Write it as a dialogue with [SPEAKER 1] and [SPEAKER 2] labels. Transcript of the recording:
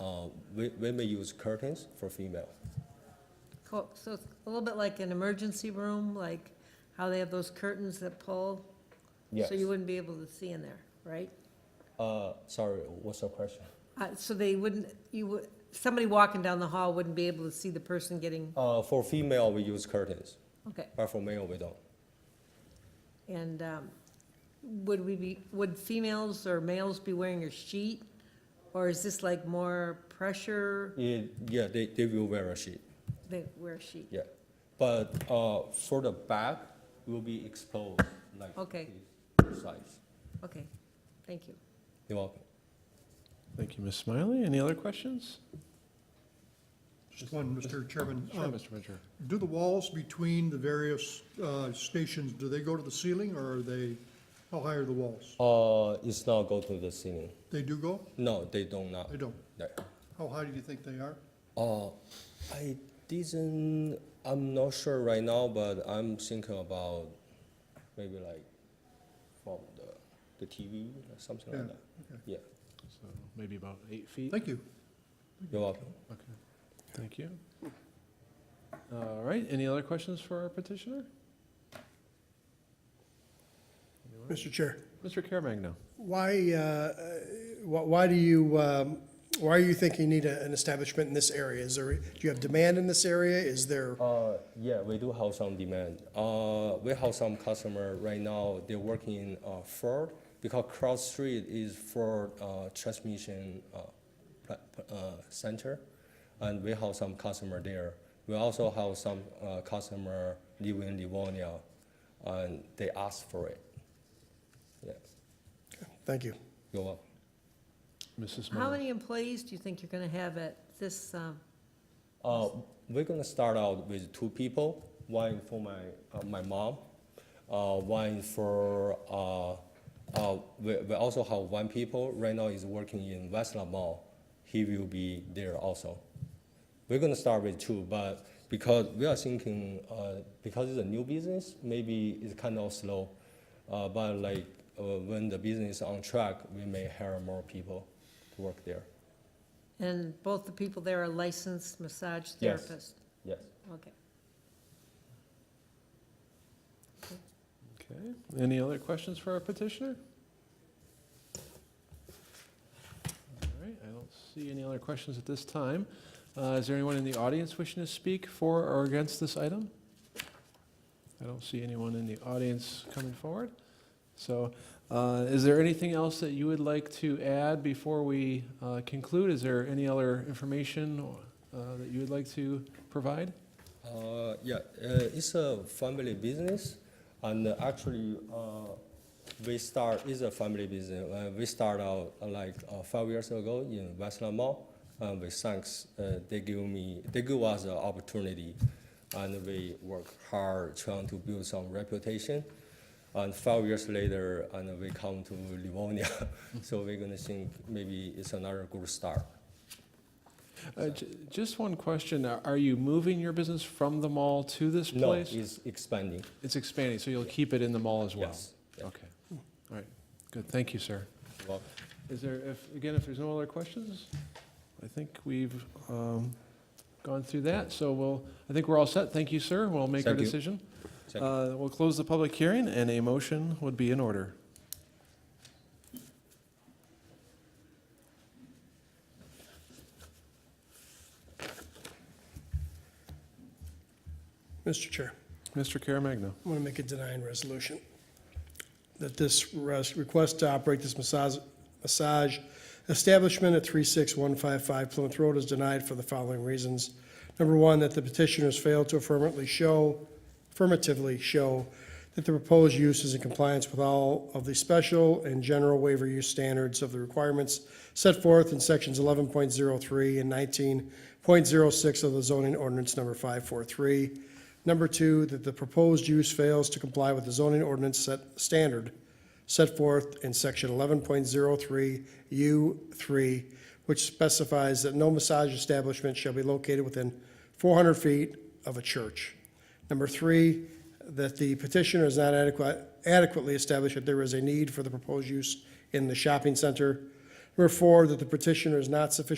[SPEAKER 1] uh, we, we may use curtains for female.
[SPEAKER 2] Cool, so it's a little bit like an emergency room, like how they have those curtains that pull?
[SPEAKER 1] Yes.
[SPEAKER 2] So you wouldn't be able to see in there, right?
[SPEAKER 1] Uh, sorry, what's the question?
[SPEAKER 2] Uh, so they wouldn't, you would, somebody walking down the hall wouldn't be able to see the person getting,
[SPEAKER 1] Uh, for female, we use curtains,
[SPEAKER 2] okay.
[SPEAKER 1] but for male, we don't.
[SPEAKER 2] And, um, would we be, would females or males be wearing a sheet? Or is this like more pressure,
[SPEAKER 1] Yeah, yeah, they, they will wear a sheet,
[SPEAKER 2] they wear a sheet?
[SPEAKER 1] yeah. But, uh, for the back, will be exposed, like.
[SPEAKER 2] Okay.
[SPEAKER 1] this Size.
[SPEAKER 2] Okay, thank you.
[SPEAKER 1] You're welcome.
[SPEAKER 3] Thank you, Ms. Smiley. Any other questions?
[SPEAKER 4] Just one, Mr. Chairman.
[SPEAKER 3] Sure,
[SPEAKER 4] Uh,
[SPEAKER 3] Mr. Ventura.
[SPEAKER 4] Do the walls between the various uh, stations, do they go to the ceiling or are they, how high are the walls?
[SPEAKER 1] Uh, it's not go to the ceiling.
[SPEAKER 4] They do go?
[SPEAKER 1] No, they don't now.
[SPEAKER 4] They don't.
[SPEAKER 1] Yeah.
[SPEAKER 4] How high do you think they are?
[SPEAKER 1] Uh, I didn't, I'm not sure right now, but I'm thinking about maybe like from the, the TV or something
[SPEAKER 4] Yeah,
[SPEAKER 1] like that.
[SPEAKER 4] okay.
[SPEAKER 1] Yeah,
[SPEAKER 3] So maybe about eight feet?
[SPEAKER 4] Thank you.
[SPEAKER 1] you're welcome.
[SPEAKER 3] Okay, thank you. All right, any other questions for our petitioner? Anyone?
[SPEAKER 5] Mr. Chair,
[SPEAKER 3] Mr. Caremagna?
[SPEAKER 5] why, uh, wh- why do you, um, why are you thinking you need a- an establishment in this area? Is there, do you have demand in this area? Is there,
[SPEAKER 1] Uh, yeah, we do have some demand. Uh, we have some customer right now, they're working in uh, Ford because cross street is Ford uh, transmission uh, pla- pla- uh, center. And we have some customer there. We also have some uh, customer live in Livonia and they ask for it. Yeah,
[SPEAKER 5] thank you.
[SPEAKER 1] you're welcome.
[SPEAKER 3] Mrs.
[SPEAKER 2] How
[SPEAKER 3] Miller?
[SPEAKER 2] many employees do you think you're gonna have at this, um,
[SPEAKER 1] Uh, we're gonna start out with two people, one for my, uh, my mom, uh, one for, uh, uh, we, we also have one people, right now is working in Westland Mall. He will be there also. We're gonna start with two, but because we are thinking, uh, because it's a new business, maybe it's kind of slow. Uh, but like, uh, when the business is on track, we may hire more people to work there.
[SPEAKER 2] and both the people there are licensed massage
[SPEAKER 1] Yes.
[SPEAKER 2] therapists?
[SPEAKER 1] Yes.
[SPEAKER 2] Okay.
[SPEAKER 3] Okay, any other questions for our petitioner? All right, I don't see any other questions at this time. Uh, Is there anyone in the audience wishing to speak for or against this item? I don't see anyone in the audience coming forward. So uh, is there anything else that you would like to add before we uh, conclude? Is there any other information uh, that you would like to provide?
[SPEAKER 1] Uh, yeah, uh, it's a family business, and uh, actually, uh, we start is a family business. Uh, we start out uh, like uh, five years ago in Westland Mall, and we thanks uh, they give me they give us an opportunity, and we work hard trying to build some reputation. And five years later, and we come to Livonia, so we're gonna think maybe it's another good start.
[SPEAKER 3] Uh, j- Just one question. Are are you moving your business from the mall to this
[SPEAKER 1] No,
[SPEAKER 3] place?
[SPEAKER 1] it's expanding.
[SPEAKER 3] It's expanding, so you'll keep it in the mall as well?
[SPEAKER 1] Yes. Yeah.
[SPEAKER 3] Okay. All right. Good. Thank you, sir.
[SPEAKER 1] Well,
[SPEAKER 3] Is there, if, again, if there's no other questions, I think we've um, gone through that. So we'll, I think we're all set. Thank you, sir. We'll make our
[SPEAKER 1] Thank you.
[SPEAKER 3] decision.
[SPEAKER 1] thank you.
[SPEAKER 3] Uh, We'll close the public hearing, and a motion would be in order.
[SPEAKER 5] Mr. Chair,
[SPEAKER 3] Mr. Caremagna.
[SPEAKER 5] I want to make a denying resolution that this res- request to operate this massage, massage establishment at 36155 Plymouth Road is denied for the following reasons. Number one, that the petitioners failed to affirmatively show, affirmatively show that the proposed use is in compliance with all of the special and general waiver use standards of the requirements set forth in sections 11.03 and 19.06 of the zoning ordinance number 543. Number two, that the proposed use fails to comply with the zoning ordinance set, standard set forth in section eleven point zero three U three, which specifies that no massage establishment shall be located within four hundred feet of a church. Number three, that the petitioner has not adequate, adequately established that there is a need for the proposed use in the shopping center. Number four, that the petitioner is not sufficiently